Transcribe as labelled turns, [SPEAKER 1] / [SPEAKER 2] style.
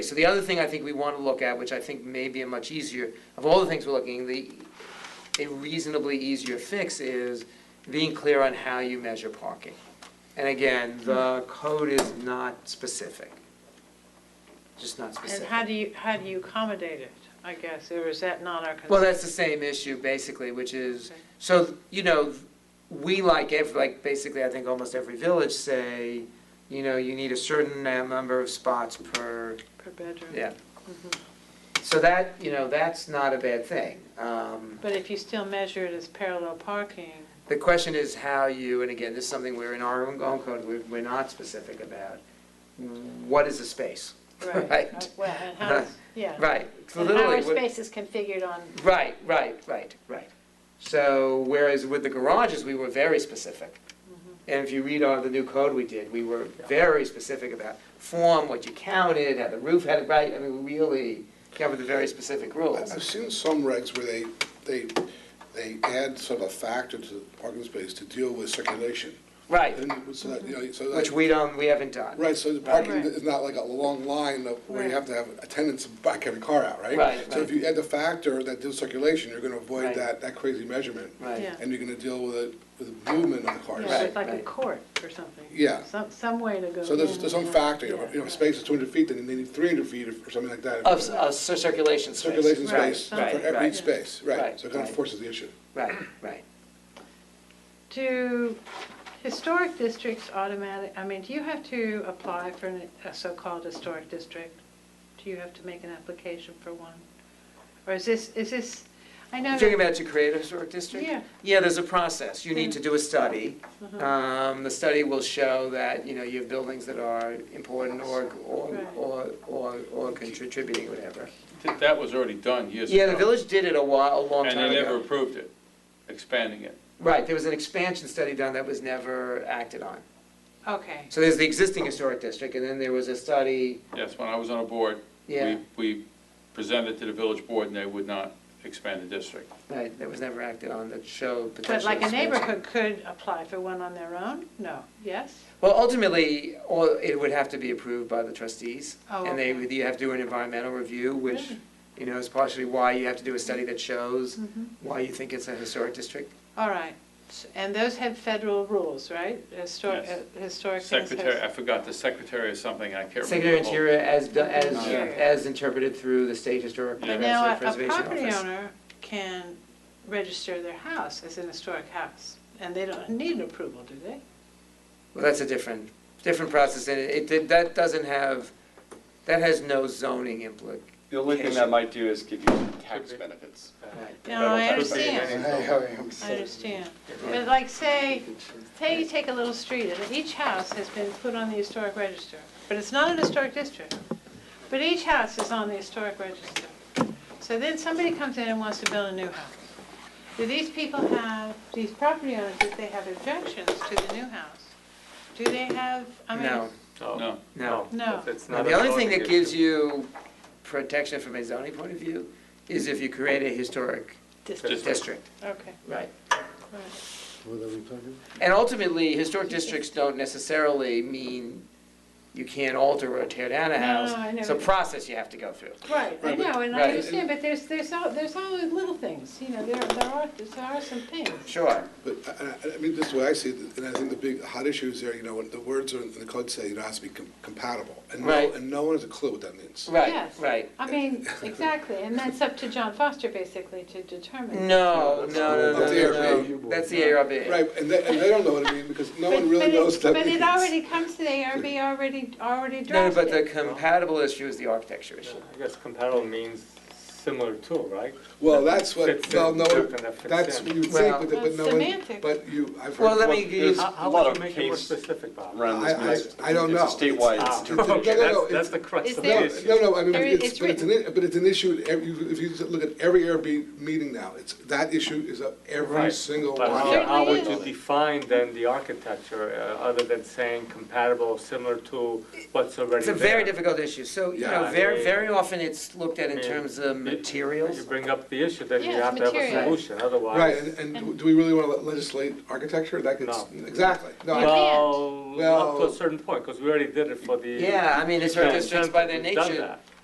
[SPEAKER 1] So the other thing I think we want to look at, which I think may be a much easier, of all the things we're looking, the, a reasonably easier fix is being clear on how you measure parking. And again, the code is not specific. Just not
[SPEAKER 2] And
[SPEAKER 1] specific.
[SPEAKER 2] how do you, how do you accommodate it, I guess, or is that not our concern?
[SPEAKER 1] Well, that's the same issue, basically, which is, so, you know, we like every, like, basically, I think almost every village say, you know, you need a certain uh, number of spots per
[SPEAKER 2] Per bedroom? Mm-hmm.
[SPEAKER 1] Yeah. So that, you know, that's not a bad thing. Um,
[SPEAKER 2] But if you still measure it as parallel parking,
[SPEAKER 1] The question is how you, and again, this is something we're in our own code, we're, we're not specific about. What is a space?
[SPEAKER 2] right.
[SPEAKER 1] Right.
[SPEAKER 2] uh, Well, and
[SPEAKER 3] Uh-huh.
[SPEAKER 2] how is, yeah.
[SPEAKER 1] Right. so
[SPEAKER 2] And how
[SPEAKER 1] literally,
[SPEAKER 2] are
[SPEAKER 1] what-
[SPEAKER 2] spaces configured on,
[SPEAKER 1] Right, right, right, right. So whereas with the garages, we were very specific. And if you read all the new code we did, we were very specific about form, what you counted, how the roof had it right. I mean, we really covered the very specific rules.
[SPEAKER 3] I've seen some regs where they, they, they add sort of a factor to the parking space to deal with circulation.
[SPEAKER 1] Right,
[SPEAKER 3] And so that, you know, so that-
[SPEAKER 1] which we don't, we haven't done.
[SPEAKER 3] right, so the parking
[SPEAKER 2] Right.
[SPEAKER 3] is not like a long line of where you
[SPEAKER 2] Right.
[SPEAKER 3] have to have attendants back every car out, right?
[SPEAKER 1] Right,
[SPEAKER 3] So if
[SPEAKER 1] right.
[SPEAKER 3] you add the factor that deals circulation, you're gonna
[SPEAKER 1] Right.
[SPEAKER 3] avoid that, that crazy measurement.
[SPEAKER 1] Right.
[SPEAKER 2] Yeah.
[SPEAKER 3] And you're gonna deal with it, with the movement of the
[SPEAKER 2] yeah,
[SPEAKER 3] cars.
[SPEAKER 1] Right.
[SPEAKER 2] it's like a court or something?
[SPEAKER 3] Yeah.
[SPEAKER 2] Some, some way to go.
[SPEAKER 3] So there's,
[SPEAKER 2] in
[SPEAKER 3] there's
[SPEAKER 2] and
[SPEAKER 3] some
[SPEAKER 2] out.
[SPEAKER 3] factor, you know,
[SPEAKER 2] Yeah.
[SPEAKER 3] you know, if space is two hundred feet, then they need three hundred feet or or something like that.
[SPEAKER 1] Of, of cir- circulation space.
[SPEAKER 3] Circulation
[SPEAKER 2] Right,
[SPEAKER 3] space for
[SPEAKER 1] right,
[SPEAKER 3] every
[SPEAKER 1] right.
[SPEAKER 3] each space,
[SPEAKER 1] Right,
[SPEAKER 3] right, so it kind of
[SPEAKER 1] right.
[SPEAKER 3] forces the issue.
[SPEAKER 1] Right, right.
[SPEAKER 2] Do historic districts automatic, I mean, do you have to apply for an- a so-called historic district? Do you have to make an application for one? Or is this, is this, I
[SPEAKER 1] You're
[SPEAKER 2] know. that-
[SPEAKER 1] talking about to create a historic district?
[SPEAKER 2] Yeah. Mm-hmm.
[SPEAKER 1] Yeah, there's a process. You need to do a study.
[SPEAKER 2] Uh-huh.
[SPEAKER 1] Um, The study will show that, you know, you have buildings that are important or, or,
[SPEAKER 2] Right.
[SPEAKER 1] or, or or contributing, whatever.
[SPEAKER 4] Th- That was already done years ago.
[SPEAKER 1] Yeah, the village did it a while, a long
[SPEAKER 4] And
[SPEAKER 1] time
[SPEAKER 4] they never
[SPEAKER 1] ago.
[SPEAKER 4] approved it, expanding it.
[SPEAKER 1] Right, there was an expansion study done that was never acted on.
[SPEAKER 2] Okay,
[SPEAKER 1] So there's the existing historic district, and then there was a study,
[SPEAKER 4] Yes, when I was on a board,
[SPEAKER 1] yeah,
[SPEAKER 4] we, we presented to the village board and they would not expand the district.
[SPEAKER 1] right, that was never acted on that showed potential
[SPEAKER 2] but like a
[SPEAKER 1] expansion.
[SPEAKER 2] neighborhood could apply for one on their own? No, yes?
[SPEAKER 1] Well, ultimately, all, it would have to be approved by the trustees.
[SPEAKER 2] Oh,
[SPEAKER 1] And they,
[SPEAKER 2] okay.
[SPEAKER 1] would- you have to do an environmental review, which,
[SPEAKER 2] Really?
[SPEAKER 1] you know, is partially why you have to do a study that shows
[SPEAKER 2] Mhm.
[SPEAKER 1] why you think it's a historic district.
[SPEAKER 2] All right, S- and those have federal rules, right? Historic,
[SPEAKER 4] Yes.
[SPEAKER 2] historic things. have-
[SPEAKER 4] Secretary, I forgot, the secretary of something, I can't remember.
[SPEAKER 1] Secretary
[SPEAKER 4] the whole-
[SPEAKER 1] Interior as, do- as,
[SPEAKER 4] Yeah.
[SPEAKER 1] as interpreted through the State Historic
[SPEAKER 4] Yeah.
[SPEAKER 2] But now, a-
[SPEAKER 1] Preservation
[SPEAKER 2] a
[SPEAKER 1] Preservation
[SPEAKER 2] property
[SPEAKER 1] Office.
[SPEAKER 2] owner can register their house as an historic house, and they don't need an approval, do they?
[SPEAKER 1] Well, that's a different, different process, and it, it- that doesn't have, that has no zoning implication.
[SPEAKER 5] The only thing that might do is give you tax benefits.
[SPEAKER 2] No, I
[SPEAKER 5] That'll- that'll be
[SPEAKER 2] understand,
[SPEAKER 5] amazing.
[SPEAKER 2] I understand. But like, say, say you take a little street, and each house has been put on the historic register, but it's not an historic district. But each house is on the historic register. So then somebody comes in and wants to build a new house. Do these people have, these property owners, if they have objections to the new house? Do they have, I mean.
[SPEAKER 1] No,
[SPEAKER 4] No,
[SPEAKER 1] no.
[SPEAKER 2] No.
[SPEAKER 1] Now, the only thing that gives you protection from a zoning point of view is if you create a historic
[SPEAKER 4] District.
[SPEAKER 1] district.
[SPEAKER 2] Okay,
[SPEAKER 1] Right.
[SPEAKER 2] right.
[SPEAKER 1] And ultimately, historic districts don't necessarily mean you can't alter or tear down a
[SPEAKER 2] No,
[SPEAKER 1] house.
[SPEAKER 2] no, I know.
[SPEAKER 1] It's a process you have to go through.
[SPEAKER 2] Right, I
[SPEAKER 3] Right, but-
[SPEAKER 2] know, and
[SPEAKER 1] Right.
[SPEAKER 2] I understand, but there's, there's all, there's always little things, you know, there, there are, there are some things.
[SPEAKER 1] Sure.
[SPEAKER 3] But uh, I- I, I mean, this is the way I see it, and I think the big hot issue is there, you know, when the words are in the code say, you know, it has to be com- compatible. And
[SPEAKER 1] Right.
[SPEAKER 3] no, and no one has a clue what that means.
[SPEAKER 1] Right,
[SPEAKER 2] Yes.
[SPEAKER 1] right.
[SPEAKER 2] I mean, exactly, and that's up to John Foster basically to determine.
[SPEAKER 1] No, no, no, no,
[SPEAKER 3] That's the
[SPEAKER 1] no, no.
[SPEAKER 3] ARB.
[SPEAKER 1] That's the ARB.
[SPEAKER 3] Right, and they, and they don't know what it means, because no one
[SPEAKER 2] But-
[SPEAKER 3] really
[SPEAKER 2] but it-
[SPEAKER 3] knows what that means.
[SPEAKER 2] But it already comes to the ARB already, already
[SPEAKER 1] No, but the
[SPEAKER 2] drafted.
[SPEAKER 1] compatible issue is the architecture issue.
[SPEAKER 6] I guess compatible means similar to, right?
[SPEAKER 3] Well, that's what,
[SPEAKER 6] Fits
[SPEAKER 3] well,
[SPEAKER 6] in,
[SPEAKER 3] no,
[SPEAKER 6] token that fits
[SPEAKER 3] that's
[SPEAKER 6] in.
[SPEAKER 3] what you would
[SPEAKER 1] Well-
[SPEAKER 3] think, but, the- but
[SPEAKER 2] That's
[SPEAKER 3] no one,
[SPEAKER 2] semantic.
[SPEAKER 3] but you, I've heard.
[SPEAKER 1] Well, let me give
[SPEAKER 5] There's
[SPEAKER 1] you,
[SPEAKER 5] a
[SPEAKER 6] How, how
[SPEAKER 5] lot
[SPEAKER 6] would
[SPEAKER 5] of
[SPEAKER 6] you make it more
[SPEAKER 5] case-
[SPEAKER 6] specific, Bob?
[SPEAKER 5] Around
[SPEAKER 3] I- I-
[SPEAKER 5] this,
[SPEAKER 3] I don't
[SPEAKER 5] it's a
[SPEAKER 3] know.
[SPEAKER 5] statewide,
[SPEAKER 6] Ah,
[SPEAKER 5] it's
[SPEAKER 3] no, no,
[SPEAKER 6] okay, that's,
[SPEAKER 3] it's-
[SPEAKER 6] that's the crux
[SPEAKER 2] Is
[SPEAKER 6] of
[SPEAKER 3] No,
[SPEAKER 6] the
[SPEAKER 2] there-
[SPEAKER 6] issue.
[SPEAKER 3] no, no, I mean,
[SPEAKER 2] There-
[SPEAKER 3] it's,
[SPEAKER 2] it's
[SPEAKER 3] but it's an, i- but it's an issue, at every- if you just look at every Airbnb meeting now, it's, that issue is up every
[SPEAKER 6] Right.
[SPEAKER 3] single one.
[SPEAKER 6] But how,
[SPEAKER 2] Certainly
[SPEAKER 6] how would
[SPEAKER 2] is.
[SPEAKER 6] you define then the architecture, uh, other than saying compatible, or similar to what's already
[SPEAKER 1] it's a
[SPEAKER 6] there?
[SPEAKER 1] very difficult issue. So, you
[SPEAKER 3] Yeah,
[SPEAKER 1] know,
[SPEAKER 6] I
[SPEAKER 1] very,
[SPEAKER 6] mean-
[SPEAKER 1] very often it's looked at in
[SPEAKER 6] I mean,
[SPEAKER 1] terms of
[SPEAKER 6] These You
[SPEAKER 1] materials?
[SPEAKER 6] bring up the issue, then you
[SPEAKER 2] Yeah, it's
[SPEAKER 6] have to have a
[SPEAKER 2] material.
[SPEAKER 6] solution,
[SPEAKER 3] Right,
[SPEAKER 6] otherwise.
[SPEAKER 3] and, and do we really want to legislate architecture? That gets,
[SPEAKER 6] No.
[SPEAKER 3] exactly. No, I-
[SPEAKER 2] You can't.
[SPEAKER 6] Well, up to
[SPEAKER 3] Well-
[SPEAKER 6] a certain point, because we already did it for the.
[SPEAKER 1] Yeah, I mean, it's our
[SPEAKER 6] Yeah,
[SPEAKER 1] districts by their
[SPEAKER 6] we've done
[SPEAKER 1] nature.
[SPEAKER 6] that.